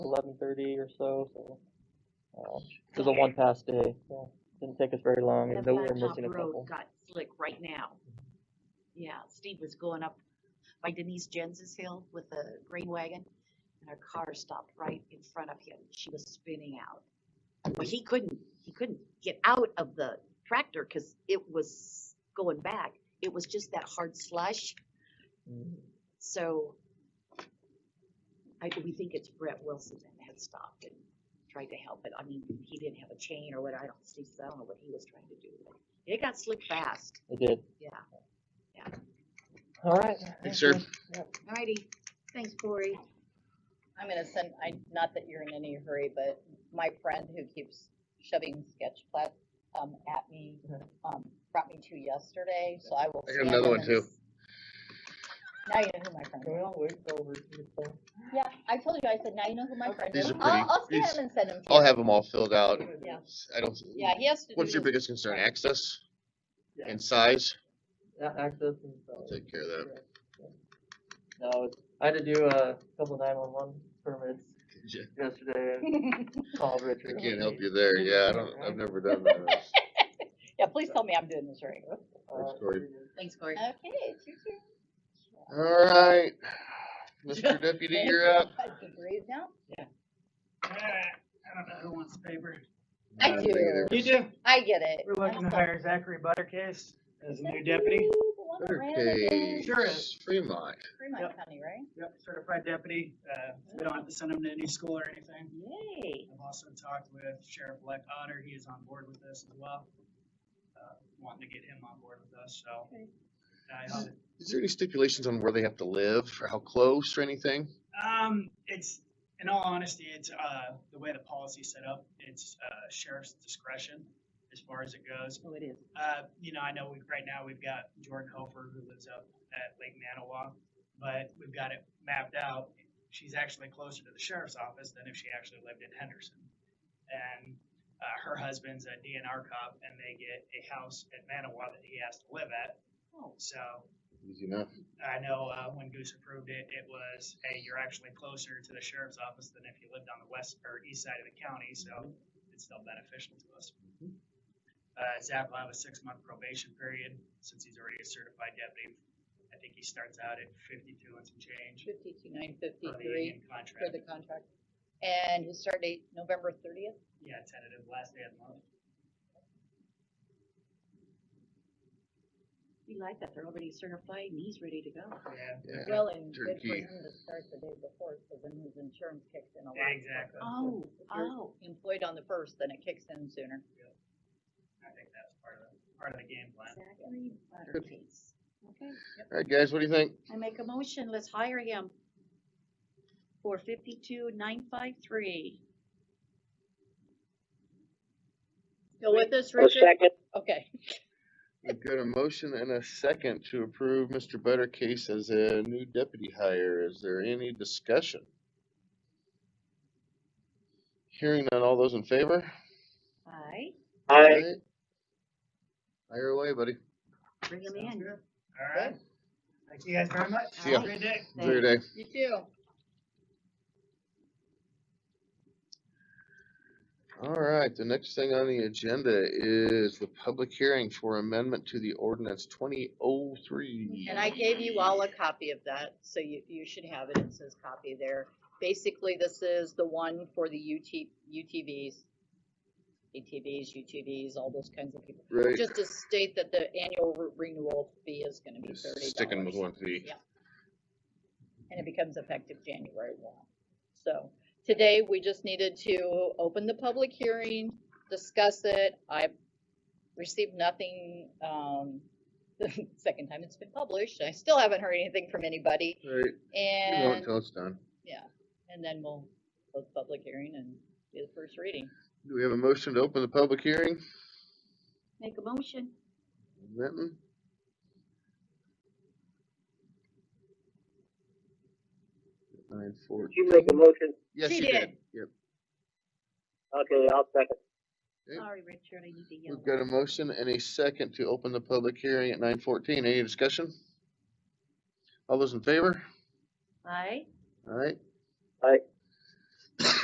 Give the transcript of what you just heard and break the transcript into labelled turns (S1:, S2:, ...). S1: thirty or so, so. uh, It was a one pass day, so didn't take us very long, and
S2: The
S1: though we were
S2: Blacktop
S1: missing a couple.
S2: Road got slick right now. Yeah, Steve was going up by Denise Jens's hill with a grain wagon, and her car stopped right in front of him. She was spinning out. But he couldn't, he couldn't get out of the tractor because it was going back. It was just that hard slush,
S1: Mm.
S2: so I, we think it's Brett Wilson that had stopped and tried to help, but I mean, he didn't have a chain or what, I don't see, so I don't know what he was trying to do. but It got slick fast.
S1: It did.
S2: Yeah.
S1: All right.
S3: Thanks, sir.
S2: Alrighty, thanks, Corey.
S4: I'm gonna send, I, not that you're in any hurry, but my friend who keeps shoving sketch plat, um, at me,
S1: Mhm.
S4: um, brought me two yesterday, so I will.
S3: I got
S4: scan
S3: another
S4: them
S3: one
S4: and
S3: too.
S4: s- Now you know who my friend is.
S1: Well, wait over. to-
S4: Yeah, I told you, I said, now you know who my friend
S3: These
S4: is.
S3: are
S4: I'll, I'll
S3: pretty.
S4: scan them and send them to you.
S3: I'll have them all filled out.
S4: Yeah.
S3: I don't,
S4: Yeah, he has to do.
S3: what's your
S4: this-
S3: biggest concern? Access
S1: Yeah.
S3: and size?
S1: Yeah, access and.
S3: I'll
S1: so-
S3: take care of that.
S1: No, it's- I had to do a couple nine one one permits
S3: Yeah.
S1: yesterday and called Richard.
S3: I can't help you there. Yeah, I don't, I've never done that.
S4: Yeah, please tell me I'm doing this right.
S1: Uh,
S3: Sorry.
S2: Thanks, Corey.
S4: Okay, it's your turn.
S3: All right. Mr. Deputy, you're up.
S4: You breathe now?
S5: I don't know who wants paper.
S4: I
S3: don't think
S4: do.
S3: it ever-
S5: You do.
S4: I get it.
S5: We're looking to hire Zachary Buttercase as a new deputy.
S3: Okay,
S5: Sure is.
S3: Fremont.
S4: Fremont
S5: Yep.
S4: County, right?
S5: Yep, certified deputy. Uh, we don't have to send him to any school or anything.
S4: Yay.
S5: I've also talked with Sheriff-elect Otter. He is on board with this as well. Uh, Wanting to get him on board with us, so.
S4: Okay.
S5: I hope-
S3: Is there any stipulations on where they have to live or how close or anything?
S5: Um, it's, in all honesty, it's, uh, the way the policy's set up, it's, uh, sheriff's discretion as far as it goes.
S4: Oh, it is.
S5: Uh, you know, I know we, right now we've got Jordan Hofer who lives up at Lake Manawa, but we've got it mapped out. She's actually closer to the sheriff's office than if she actually lived in Henderson. And, uh, her husband's a DNR cop and they get a house at Manawa that he has to live at.
S4: Oh.
S5: So,
S3: Easy enough.
S5: I know uh, when Goose approved it, it was, hey, you're actually closer to the sheriff's office than if you lived on the west or east side of the county, so it's still beneficial to us. Uh, Zach will have a six-month probation period since he's already a certified deputy. I think he starts out at fifty-two and some change
S4: Fifty-two, nine
S5: for the
S4: fifty-three.
S5: union
S4: for
S5: contract.
S4: the contract. And his start date, November thirtieth?
S5: Yeah, tentative last day of the month.
S2: We like that, they're already certified and he's ready to go.
S5: Yeah,
S3: Yeah.
S4: Well, and good for
S3: Turkey.
S4: him to start the day before, so then his insurance kicks in a lot.
S5: Exactly.
S2: Oh,
S4: If you're
S2: oh,
S4: Employed on the first, then it kicks in sooner.
S5: I think that's part of, the- part of the game plan.
S2: Zachary Buttercase. Okay,
S3: All right, guys, what do you think?
S2: I make a motion, let's hire him for fifty-two nine five three.
S4: Go with us, Richard? Okay.
S3: We've got a motion and a second to approve Mr. Buttercase as a new deputy hire. Is there any discussion? Hearing none, all those in favor?
S2: Aye,
S3: Aye. Hire away, buddy.
S2: bring him in.
S5: All right. Thank you guys very much.
S3: See ya.
S5: Have a Good day.
S3: Enjoy your day.
S4: You too.
S3: All right, the next thing on the agenda is the public hearing for amendment to the ordinance twenty oh three.
S4: And I gave you all a copy of that, so you, you should have it, it says copy there. Basically, this is the one for the UT, UTVs. E ATVs, UTVs, all those kinds of people.
S3: Right,
S4: Just to state that the annual re- renewal fee is gonna be
S3: Just
S4: thirty dollars.
S3: sticking with one fee.
S4: and it becomes effective January one. So today, we just needed to open the public hearing, discuss it. I received nothing, um, the second time it's been published. I still haven't heard anything from anybody.
S3: Right, you know
S4: And,
S3: until it's done.
S4: yeah, and then we'll close the public hearing and do the first reading.
S3: Do we have a motion to open the public hearing?
S2: Make a motion,
S3: Benton? Nine four.
S6: Did you make a motion?
S3: Yes,
S4: She
S3: you
S4: did.
S3: did. Yep.
S6: Okay, I'll second.
S3: Okay.
S2: sorry, Richard, I need to yell.
S3: We've got a motion and a second to open the public hearing at nine fourteen. Any discussion? All those in favor?
S2: Aye,
S3: Alright.
S6: Aye.